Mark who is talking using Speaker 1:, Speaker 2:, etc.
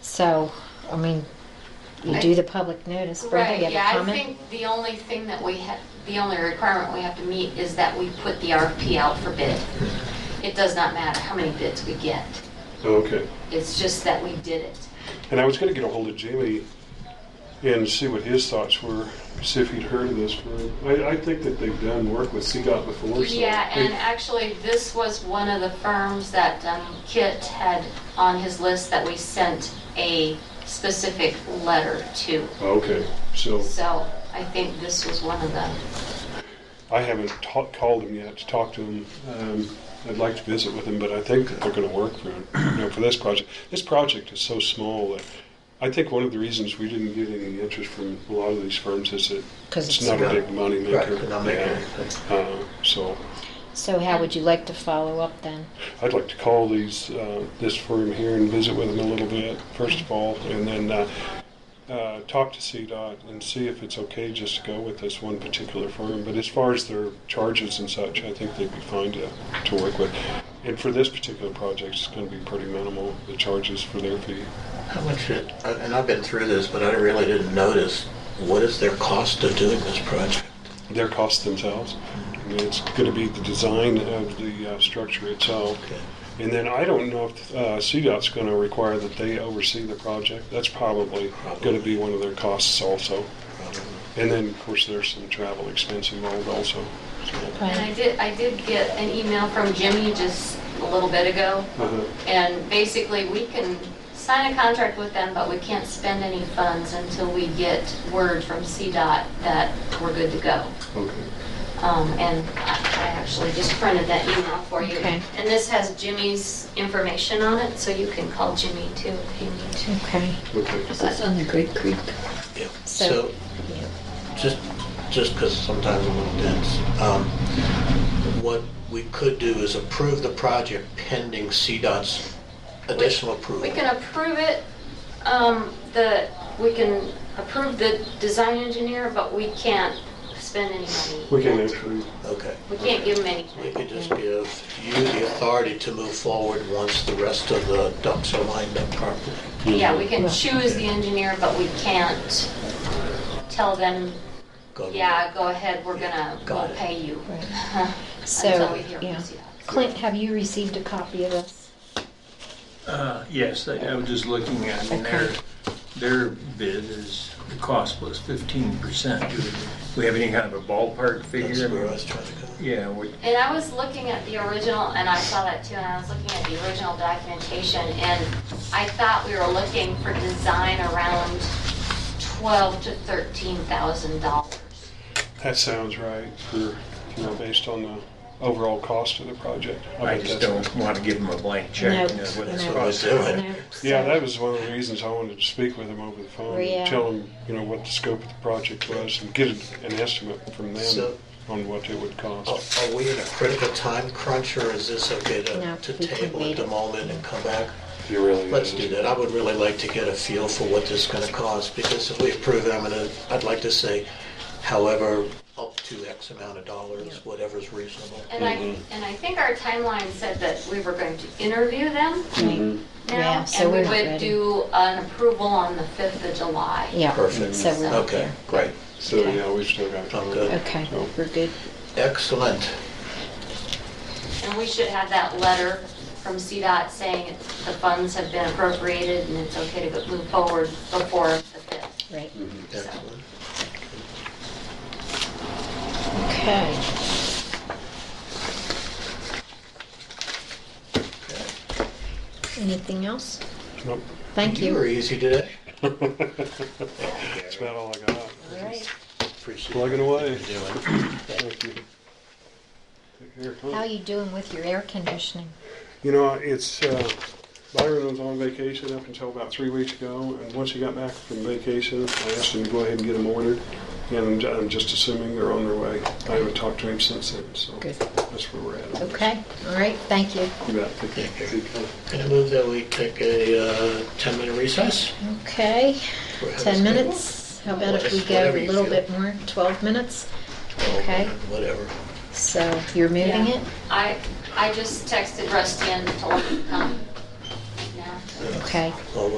Speaker 1: So, I mean, you
Speaker 2: I-
Speaker 1: do the public notice. Brenda,
Speaker 2: Right,
Speaker 1: you have
Speaker 2: yeah,
Speaker 1: a
Speaker 2: I
Speaker 1: comment?
Speaker 2: think the only thing that we have, the only requirement we have to meet is that we put the RFP out for bid. It does not matter how many bids we get,
Speaker 3: Okay.
Speaker 2: it's just that we did it.
Speaker 3: And I was going to get a hold of Jamie and see what his thoughts were, see if he'd heard of this. firm. I, I think that they've done work with CDOT before. so
Speaker 2: Yeah,
Speaker 3: they-
Speaker 2: and uh, actually, this was one of the firms that um, Kit had on his list that we sent a specific letter to.
Speaker 3: Okay, so
Speaker 2: So I think this was one of them.
Speaker 3: I haven't ta- called him yet to talk to him. Um, I'd like to visit with him, but I think that they're going to work for you know, for this project. This project is so small that I think one of the reasons we didn't get any interest from a lot of these firms is that
Speaker 1: 'Cause
Speaker 3: it's,
Speaker 1: it's
Speaker 3: not,
Speaker 4: not-
Speaker 3: a big money maker.
Speaker 4: Right, not making anything.
Speaker 3: Uh, so
Speaker 1: So how would you like to follow up then?
Speaker 3: I'd like to call these, uh, this firm here and visit with them a little bit, first of all, and then uh, uh, talk to CDOT and see if it's okay just to go with this one particular firm. But as far as their charges and such, I think they'd be fine to, to work with. And for this particular project, it's going to be pretty minimal, the charges for their fee.
Speaker 4: How much, it- and I've been through this, but I really didn't notice, what is their cost of doing this project?
Speaker 3: Their costs themselves. I mean, it's going to be the design of the uh, structure itself.
Speaker 4: Okay.
Speaker 3: And then I don't know if uh, CDOT's going to require that they oversee the project. That's probably going to be one of their costs also. And then, of course, there's some travel expense involved also. So,
Speaker 2: And I did, I did get an email from Jimmy just a little bit ago,
Speaker 3: uh,
Speaker 2: and basically, we can sign a contract with them, but we can't spend any funds until we get word from CDOT that we're good to go.
Speaker 3: okay.
Speaker 2: Um, and I I actually just printed that email for you.
Speaker 1: Okay.
Speaker 2: And this has Jimmy's information on it, so you can call Jimmy too if you need to.
Speaker 1: Okay.
Speaker 3: Okay.
Speaker 5: That's on the Great Creek.
Speaker 4: Yeah.
Speaker 1: So-
Speaker 4: So, just, just because sometimes I'm a little dense, um, what we could do is approve the project pending CDOT's additional approval.
Speaker 2: We can approve it, um, the, we can approve the design engineer, but we can't spend any money.
Speaker 3: We can
Speaker 2: yet.
Speaker 3: actually,
Speaker 4: Okay.
Speaker 2: We can't give him
Speaker 4: We
Speaker 2: anything.
Speaker 4: could just give you the authority to move forward once the rest of the ducks are lined up properly.
Speaker 2: Yeah, we can choose the engineer, but we can't tell them,
Speaker 4: Go to-
Speaker 2: yeah, go ahead, we're gonna,
Speaker 4: Got
Speaker 2: we'll
Speaker 4: it.
Speaker 2: pay you. Until
Speaker 1: So,
Speaker 2: we hear from
Speaker 1: yeah.
Speaker 2: CDOT.
Speaker 1: Clint, have you received a copy of this?
Speaker 6: Uh, Yes, I I was just looking at, it, and their, their bid is, the cost was 15%. Do we have any kind of a ballpark
Speaker 4: That's where I
Speaker 6: figure?
Speaker 4: was trying to go.
Speaker 6: Yeah, we-
Speaker 2: And I was looking at the original, and I saw that too, and I was looking at the original documentation, and I thought we were looking for design around twelve to thirteen thousand dollars.
Speaker 3: that sounds right for, you know, based on the overall cost of the project.
Speaker 6: I
Speaker 3: bet
Speaker 6: just
Speaker 3: that's-
Speaker 6: don't want to give them a blank check.
Speaker 1: No,
Speaker 6: you know, what it's
Speaker 4: That's
Speaker 1: no.
Speaker 4: what I was
Speaker 6: costing.
Speaker 4: doing.
Speaker 1: No.
Speaker 3: Yeah,
Speaker 1: So-
Speaker 3: that was one of the reasons I wanted to speak with him over the phone
Speaker 1: Yeah.
Speaker 3: and tell him, you know, what the scope of the project was and get an estimate from them
Speaker 4: So- Oh,
Speaker 3: on what it would
Speaker 4: Are
Speaker 3: cost.
Speaker 4: are we in a critical time crunch, or is this okay
Speaker 1: No,
Speaker 4: to, to
Speaker 1: we can
Speaker 4: table
Speaker 1: wait.
Speaker 4: at the moment and come back?
Speaker 3: It really
Speaker 4: Let's
Speaker 3: is.
Speaker 4: do that. I would really like to get a feel for what this is gonna cost, because if we approve it, I'm gonna, I'd like to say, however, up to X amount of dollars, whatever's reasonable.
Speaker 2: And I,
Speaker 1: Mm-hmm.
Speaker 2: and I think our timeline said that we were going to interview them
Speaker 1: Right. Mm-hmm. Yeah,
Speaker 2: now,
Speaker 1: so
Speaker 2: and we
Speaker 1: we're not
Speaker 2: would
Speaker 1: ready.
Speaker 2: do an approval on the fifth of July.
Speaker 1: Yeah,
Speaker 4: Perfect.
Speaker 1: so we're not
Speaker 4: Okay,
Speaker 1: there.
Speaker 4: great.
Speaker 3: So, yeah, we've still got.
Speaker 4: I'm good.
Speaker 1: Okay,
Speaker 3: So-
Speaker 1: we're good.
Speaker 4: Excellent.
Speaker 2: And we should have that letter from CDOT saying it's- the funds have been appropriated and it's okay to go- move forward before the fifth.
Speaker 1: Right.
Speaker 4: Mm-hmm. Excellent.
Speaker 1: Okay. Anything else?
Speaker 3: Nope.
Speaker 1: Thank
Speaker 4: You were
Speaker 1: you.
Speaker 4: easy today.
Speaker 3: That's about all I got.
Speaker 1: All right.
Speaker 4: Appreciate it.
Speaker 3: Plugging away.
Speaker 4: Doing.
Speaker 3: Thank you. Take care.
Speaker 1: How are you doing with your air conditioning?
Speaker 3: You know, it's, uh, Byron was on vacation up until about three weeks ago, and once he got back from vacation, I asked him to go ahead and get them ordered, and I'm just assuming they're on their way. I haven't talked to him since then, so
Speaker 1: Good.
Speaker 3: that's where we're at.
Speaker 1: Okay, all right, thank you.
Speaker 3: You bet. Take care. Take care.
Speaker 4: Can I move that we take a 10-minute recess?
Speaker 1: Okay,
Speaker 4: We're having
Speaker 1: 10
Speaker 4: a-
Speaker 1: minutes. How about if we go
Speaker 4: Whatever
Speaker 1: a
Speaker 4: you
Speaker 1: little
Speaker 4: feel.
Speaker 1: bit more, 12 minutes?
Speaker 4: Oh,
Speaker 1: Okay.
Speaker 4: Whatever.
Speaker 1: So you're moving
Speaker 2: Yeah.
Speaker 1: it?
Speaker 2: I, I just texted Rusty and told him to come. Yeah.
Speaker 1: Okay.
Speaker 4: All